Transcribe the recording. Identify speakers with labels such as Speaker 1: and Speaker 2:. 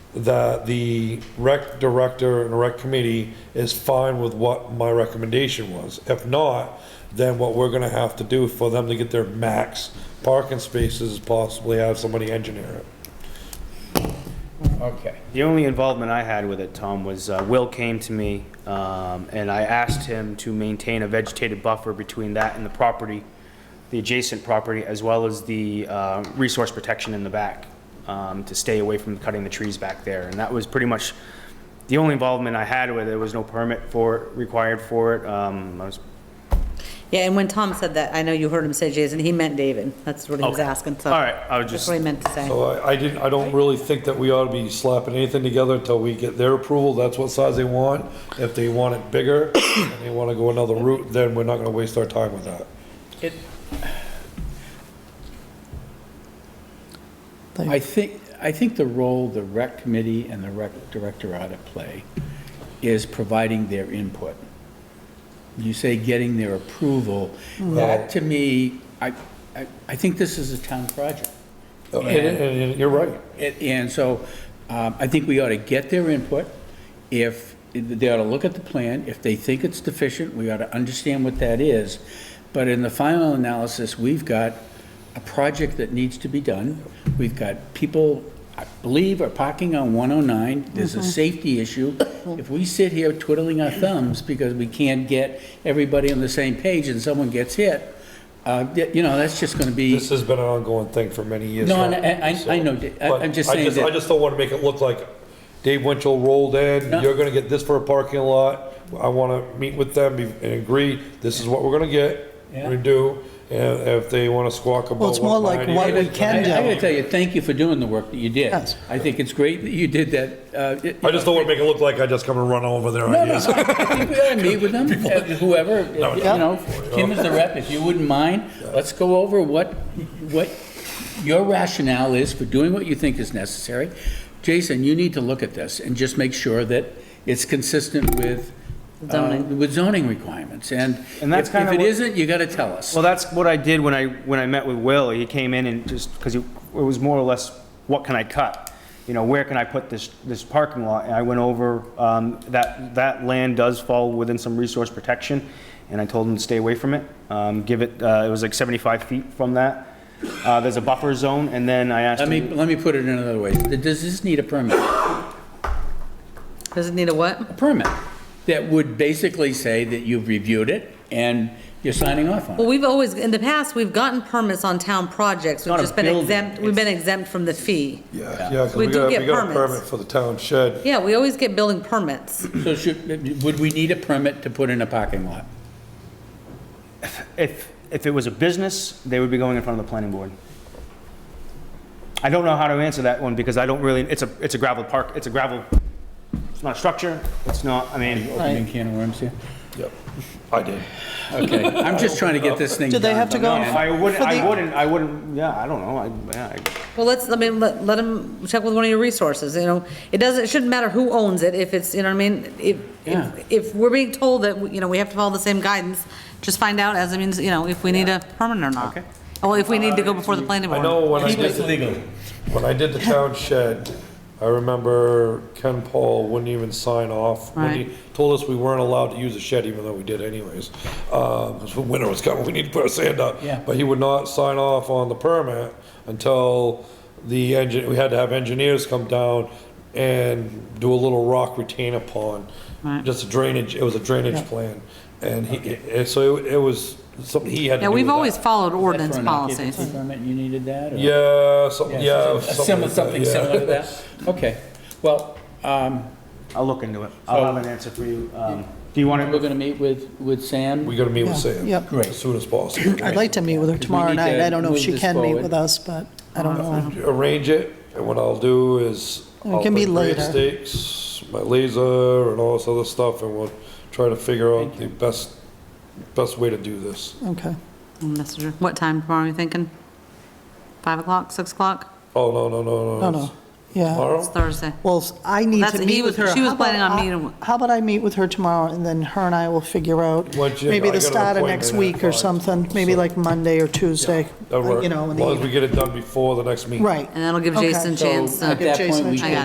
Speaker 1: that the rec director and rec committee is fine with what my recommendation was. If not, then what we're gonna have to do for them to get their max parking spaces is possibly have somebody engineer it.
Speaker 2: Okay.
Speaker 3: The only involvement I had with it, Tom, was uh, Will came to me, um, and I asked him to maintain a vegetated buffer between that and the property, the adjacent property, as well as the uh, resource protection in the back, um, to stay away from cutting the trees back there. And that was pretty much the only involvement I had with it. There was no permit for, it required for it. Um, I was
Speaker 4: Yeah, and when Tom said that, I know you heard him say Jason, he meant David. That's what he was
Speaker 3: Okay.
Speaker 4: asking, so.
Speaker 3: All right, I was
Speaker 4: That's
Speaker 3: just-
Speaker 4: what he meant to say.
Speaker 1: So I, I didn't, I don't really think that we ought to be slapping anything together until we get their approval, that's what size they want. If they want it bigger, and they wanna go another route, then we're not gonna waste our time with that.
Speaker 2: It. I think, I think the role the rec committee and the rec director ought to play is providing their input. You say getting their approval. That, to me, I, I, I think this is a town project.
Speaker 1: And, and you're right.
Speaker 2: And- And so um, I think we ought to get their input. If, they ought to look at the plan. If they think it's deficient, we ought to understand what that is. But in the final analysis, we've got a project that needs to be done. We've got people, I believe, are parking on 109. There's a safety issue. If we sit here twiddling our thumbs because we can't get everybody on the same page and someone gets hit, uh, you know, that's just going to be.
Speaker 1: This has been an ongoing thing for many years.
Speaker 2: No,
Speaker 1: now,
Speaker 2: and I- I-
Speaker 1: so-
Speaker 2: I know, Dave. I-
Speaker 1: but
Speaker 2: I'm just saying that-
Speaker 1: I just don't wanna make it look like Dave Winchell rolled in,
Speaker 2: No.
Speaker 1: you're gonna get this for a parking lot. I wanna meet with them and agree, this is what we're gonna get, we
Speaker 2: Yeah.
Speaker 1: do, and if they wanna squawk about.
Speaker 5: Well, it's
Speaker 1: what
Speaker 5: more
Speaker 1: my
Speaker 5: like
Speaker 1: idea
Speaker 5: what
Speaker 1: is,
Speaker 5: we
Speaker 1: then
Speaker 5: can
Speaker 2: I I
Speaker 1: that's
Speaker 5: do.
Speaker 1: fine.
Speaker 2: gotta tell you, thank you for doing the work that you did.
Speaker 5: Yes.
Speaker 2: I think it's great that you did that. uh, it-
Speaker 1: I just don't want to make it look like I just come and run over their
Speaker 2: No, no,
Speaker 1: ideas.
Speaker 2: I think we ought to meet with them, uh, whoever, uh, you
Speaker 5: Yeah.
Speaker 2: know, Kim is the rep, if you wouldn't mind, let's go over what, what your rationale is for doing what you think is necessary. Jason, you need to look at this and just make sure that it's consistent with, uh,
Speaker 4: Zoning.
Speaker 2: with zoning requirements, and
Speaker 3: And that's
Speaker 2: if
Speaker 3: kinda
Speaker 2: if it
Speaker 3: what-
Speaker 2: isn't, you gotta tell us.
Speaker 3: Well, that's what I did when I, when I met with Will. He came in and just, because it was more or less, what can I cut? You know, where can I put this, this parking lot? And I went over, um, that, that land does fall within some resource protection, and I told him to stay away from it. Um, give it, uh, it was like 75 feet from that. Uh, there's a buffer zone, and then I asked
Speaker 2: Let me,
Speaker 3: him,
Speaker 2: let me put it another way, does this need a permit?
Speaker 4: Does it need a what?
Speaker 2: a permit that would basically say that you've reviewed it and you're signing off on
Speaker 4: Well,
Speaker 2: it.
Speaker 4: we've always, in the past, we've gotten permits on town projects. We've
Speaker 2: not a
Speaker 4: just been
Speaker 2: building,
Speaker 4: exempt, we've been exempt from the fee.
Speaker 1: Yeah, yeah, 'cause
Speaker 4: We
Speaker 1: we
Speaker 4: do
Speaker 1: got,
Speaker 4: get
Speaker 1: we got a
Speaker 4: permits.
Speaker 1: permit for the town shed.
Speaker 4: Yeah, we always get building permits.
Speaker 2: So should, would we need a permit to put in a parking lot?
Speaker 3: if, if it was a business, they would be going in front of the planning board. I don't know how to answer that one, because I don't really, it's a, it's a gravel park, it's a gravel, it's not a structure, it's not, I mean.
Speaker 2: Opening can of worms here?
Speaker 1: Yep, I did.
Speaker 2: Okay, I'm just trying to get this thing
Speaker 5: Do
Speaker 2: done.
Speaker 5: they have to
Speaker 2: but
Speaker 5: go
Speaker 2: man,
Speaker 5: in
Speaker 3: I wouldn't,
Speaker 5: For
Speaker 3: I
Speaker 5: the-
Speaker 3: wouldn't, I wouldn't, yeah, I don't know, I, yeah, I-
Speaker 4: Well, let's, I mean, let, let him check with one of your resources, you know? It doesn't, it shouldn't matter who owns it, if it's, you know what I mean? If,
Speaker 2: Yeah.
Speaker 4: if, if we're being told that, you know, we have to follow the same guidance, just find out as it means, you know, if we need a permit or not.
Speaker 3: Okay.
Speaker 4: Well, if we need to go before the planning
Speaker 1: I
Speaker 4: board.
Speaker 1: know when I
Speaker 2: Keep
Speaker 1: did,
Speaker 2: this legal.
Speaker 1: when I did the town shed, I remember Ken Paul wouldn't even sign off. When he
Speaker 4: Right.
Speaker 1: told us we weren't allowed to use the shed, even though we did anyways. Um, 'cause when winter was coming, we need to put our sand up.
Speaker 2: Yeah.
Speaker 1: But he would not sign off on the permit until the engine, we had to have engineers come down and do a little rock retainer pond.
Speaker 4: Right.
Speaker 1: Just a drainage, it was a drainage plan. And he, and so it was something he had to
Speaker 4: Yeah,
Speaker 1: do
Speaker 4: we've
Speaker 1: with that.
Speaker 4: always followed
Speaker 2: That's
Speaker 4: ordinance
Speaker 2: for an
Speaker 4: policies.
Speaker 2: occupancy permit, you needed that? or-
Speaker 1: Yeah, something, yeah.
Speaker 2: A Similar,
Speaker 1: like that,
Speaker 2: something
Speaker 1: yeah.
Speaker 2: similar to that? Okay, well, um,
Speaker 3: I'll look into it, I'll have an answer for you, um, do you want
Speaker 2: we're
Speaker 3: to,
Speaker 2: gonna meet with, with Sam?
Speaker 1: We gotta meet with
Speaker 5: Yeah,
Speaker 1: Sam.
Speaker 5: yep.
Speaker 2: Great.
Speaker 1: As soon as possible.
Speaker 5: I'd like to meet with her
Speaker 2: we
Speaker 5: tomorrow
Speaker 2: need
Speaker 5: night.
Speaker 2: to
Speaker 5: I don't know if
Speaker 2: move
Speaker 5: she
Speaker 2: this
Speaker 5: can meet
Speaker 2: forward.
Speaker 5: with us, but I don't
Speaker 4: Uh-huh.
Speaker 5: know.
Speaker 1: Arrange it, and what I'll do is.
Speaker 5: It
Speaker 1: I'll
Speaker 5: can be
Speaker 1: put grade
Speaker 5: later.
Speaker 1: Stakes, my laser, and all this other stuff, and we'll try to figure out the best, best way to do this.
Speaker 5: Okay.
Speaker 4: Messenger. What time tomorrow are you thinking? Five o'clock, six o'clock?
Speaker 1: Oh, no, no, no,
Speaker 5: No, Uh,
Speaker 1: no.
Speaker 5: no.
Speaker 1: it's
Speaker 5: Yeah.
Speaker 4: It's
Speaker 1: Tomorrow?
Speaker 4: Thursday.
Speaker 5: Well, s- I need
Speaker 4: That's-
Speaker 5: to
Speaker 4: he
Speaker 5: meet
Speaker 4: was-
Speaker 5: with her.
Speaker 4: she was
Speaker 5: How about
Speaker 4: planning on
Speaker 5: I-
Speaker 4: meeting with-
Speaker 5: How about I meet with her tomorrow and then her and I will figure out
Speaker 1: Well, Jim,
Speaker 5: maybe
Speaker 1: I
Speaker 5: the
Speaker 1: got an
Speaker 5: start of
Speaker 1: appointment
Speaker 5: next
Speaker 1: at
Speaker 5: week or
Speaker 1: five,
Speaker 5: something, maybe
Speaker 1: so-
Speaker 5: like Monday or Tuesday.
Speaker 1: That
Speaker 5: You
Speaker 1: works, as
Speaker 5: know, in the
Speaker 1: long as we
Speaker 5: evening.
Speaker 1: get it done before the next meeting.
Speaker 5: Right.
Speaker 4: And that'll give
Speaker 5: Okay.
Speaker 4: Jason a
Speaker 2: So
Speaker 4: chance to.
Speaker 2: at that
Speaker 5: Jason
Speaker 2: point,
Speaker 5: a
Speaker 2: we
Speaker 4: chance.
Speaker 2: can